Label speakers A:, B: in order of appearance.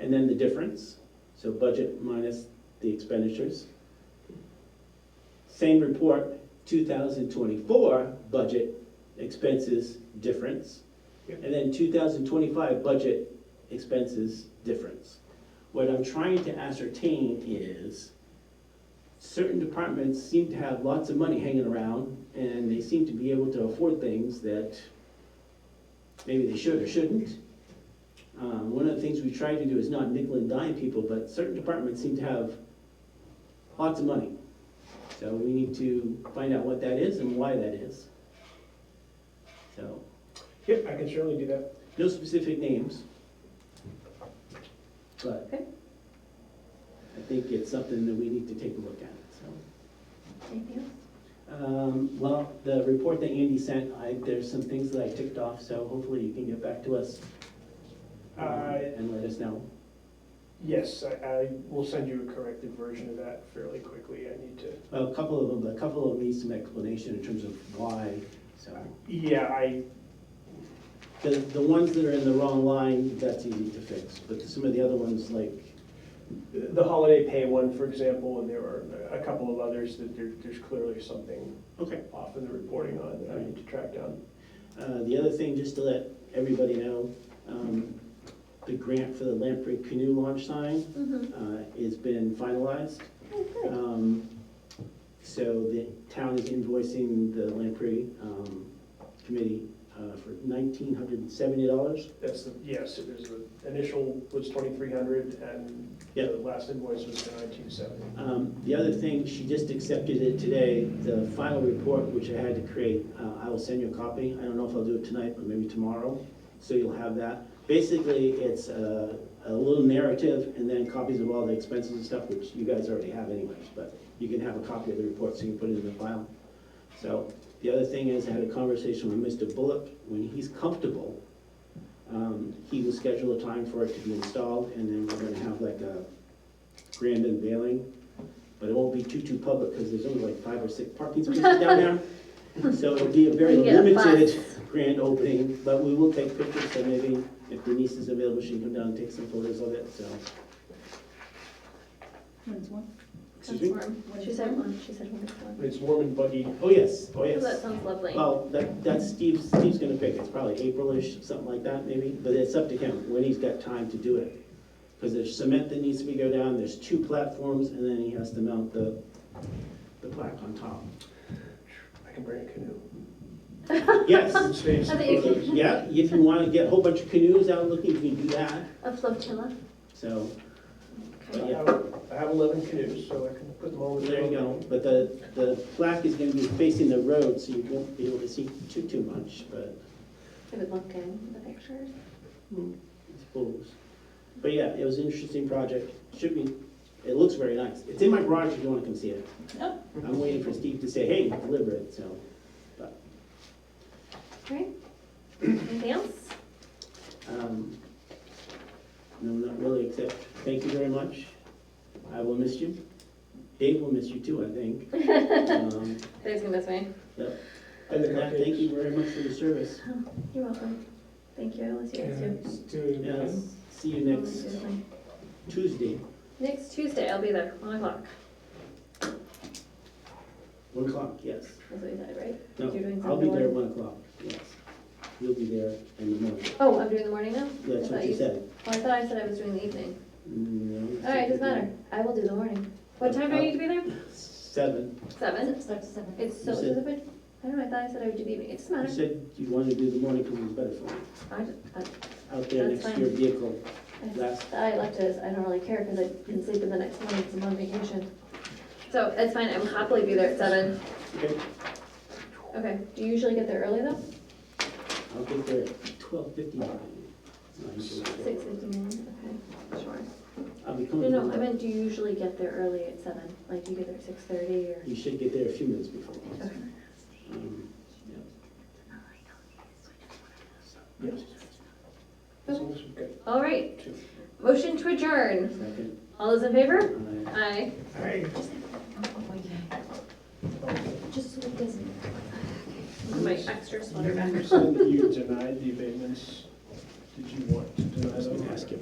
A: And then the difference, so budget minus the expenditures. Same report, two thousand twenty-four budget expenses difference.
B: Yep.
A: And then two thousand twenty-five budget expenses difference. What I'm trying to ascertain is certain departments seem to have lots of money hanging around and they seem to be able to afford things that maybe they should or shouldn't. Um, one of the things we try to do is not nickel and dime people, but certain departments seem to have lots of money. So we need to find out what that is and why that is. So,
B: Yep, I can certainly do that.
A: no specific names. But
C: Okay.
A: I think it's something that we need to take a look at, so.
C: Anything else?
A: Um, well, the report that Andy sent, I, there's some things that I ticked off, so hopefully you can get back to us. um,
B: Uh,
A: And let us know.
B: Yes, I, I will send you a corrected version of that fairly quickly. I need to,
A: A couple of them, but a couple of them need some explanation in terms of why, so.
B: yeah, I,
A: The, the ones that are in the wrong line, that's easy to fix, but some of the other ones, like,
B: the holiday pay one, for example, and there are a couple of others that there, there's clearly something
A: okay.
B: off in the reporting on that I need to track down.
A: Uh, the other thing, just to let everybody know, um, the grant for the Lamprey canoe launch sign,
C: Mm-hmm.
A: uh, has been finalized.
C: Oh, good.
A: Um, So the town is invoicing the Lamprey um, Committee uh, for nineteen hundred and seventy dollars.
B: That's the, yes, it was, the initial was twenty-three hundred and
A: Yeah.
B: the last invoice was for nineteen seventy.
A: Um, The other thing, she just accepted it today, the final report, which I had to create, uh, I will send you a copy. I don't know if I'll do it tonight, but maybe tomorrow, so you'll have that. Basically, it's uh, a little narrative and then copies of all the expenses and stuff, which you guys already have anyways, but you can have a copy of the report so you can put it in the file. So the other thing is, I had a conversation with Mr. Bullock, when he's comfortable, um, he will schedule a time for it to be installed, and then we're gonna have like a grand unveiling. But it won't be too, too public, because there's only like five or six parking spaces down there. So it'll be a very
C: We get a
A: limited
C: bus.
A: grand opening, but we will take pictures, so maybe if Denise is available, she can come down and take some photos of it, so.
D: When's one?
A: Excuse me?
C: She said one, she said one. one.
B: It's warm and buggy.
A: Oh, yes, oh,
C: Oh,
A: yes.
C: That sounds lovely.
A: Well, that, that's Steve's, Steve's gonna pick, it's probably Aprilish, something like that maybe, but it's up to him, when he's got time to do it. Because there's cement that needs to be go down, there's two platforms, and then he has to mount the, the plaque on top.
B: I can bring a canoe.
A: Yes,
B: Saves
C: I think you
B: photos.
A: yeah, if you wanna get a whole bunch of canoes out looking, you can do that,
C: A flotilla.
A: so,
B: I
A: but yeah,
B: have- I have eleven canoes, so I can put them all in.
A: there you go. But the, the plaque is gonna be facing the road, so you won't be able to see too, too much, but.
C: It would look good in the pictures.
A: I suppose. But yeah, it was an interesting project. Should be, it looks very nice. It's in my garage if you wanna come see it.
D: Oh.
A: I'm waiting for Steve to say, hey, deliver it, so.
C: Right? Anything else?
A: um, No, not really, except, thank you very much. I will miss you. Dave will miss you too, I think. Um,
C: Dave's gonna miss me.
A: Other than that, thank you very much for your service.
C: You're welcome. Thank you, I will see you guys too.
A: Yeah, See you next Tuesday,
C: Next Tuesday, I'll be there, one o'clock.
A: one o'clock, yes.
C: That's what you said, right?
A: No,
C: You're doing
A: I'll be there at
C: something.
A: one o'clock, yes. You'll be there in the morning.
C: Oh, I'm doing the morning now?
A: That's
C: I thought
A: what you said.
C: Well, I thought I said I was doing the evening.
A: No.
C: All right, doesn't matter. I will do the morning. What time do I need to be there?
A: Seven.
C: Seven?
D: Starts at seven.
C: It's so,
A: You said-
C: it's a bit- I don't know, I thought I said I would do the evening. It doesn't
A: You
C: matter.
A: said you wanted to do the morning because it was better for you.
C: I just, I
A: Out there
C: That's
A: next to your
C: fine.
A: vehicle.
C: I just-
A: Last,
C: I left it, as I don't really care because I can sleep in the next morning because I'm on vacation. So it's fine, I will happily be there at seven.
A: okay,
C: Okay, do you usually get there early though?
A: I'll get there at twelve fifty-nine.
C: Six fifty-nine, okay, sure.
A: I'll be
C: No,
A: coming.
C: no,
A: from-
C: I meant, do you usually get there early at seven? Like, do you get there at six thirty or?
A: You should get there a few minutes before.
C: Okay.
A: Um, yeah.
B: As long as we've got
C: All right,
B: two.
C: motion to adjourn.
A: Second,
C: All those in favor?
A: uh,
C: Aye.
B: Hey.
D: Just so it doesn't.
C: My extra sweater back.
B: You said you denied the abatements. Did you want to deny them?
A: Ask him.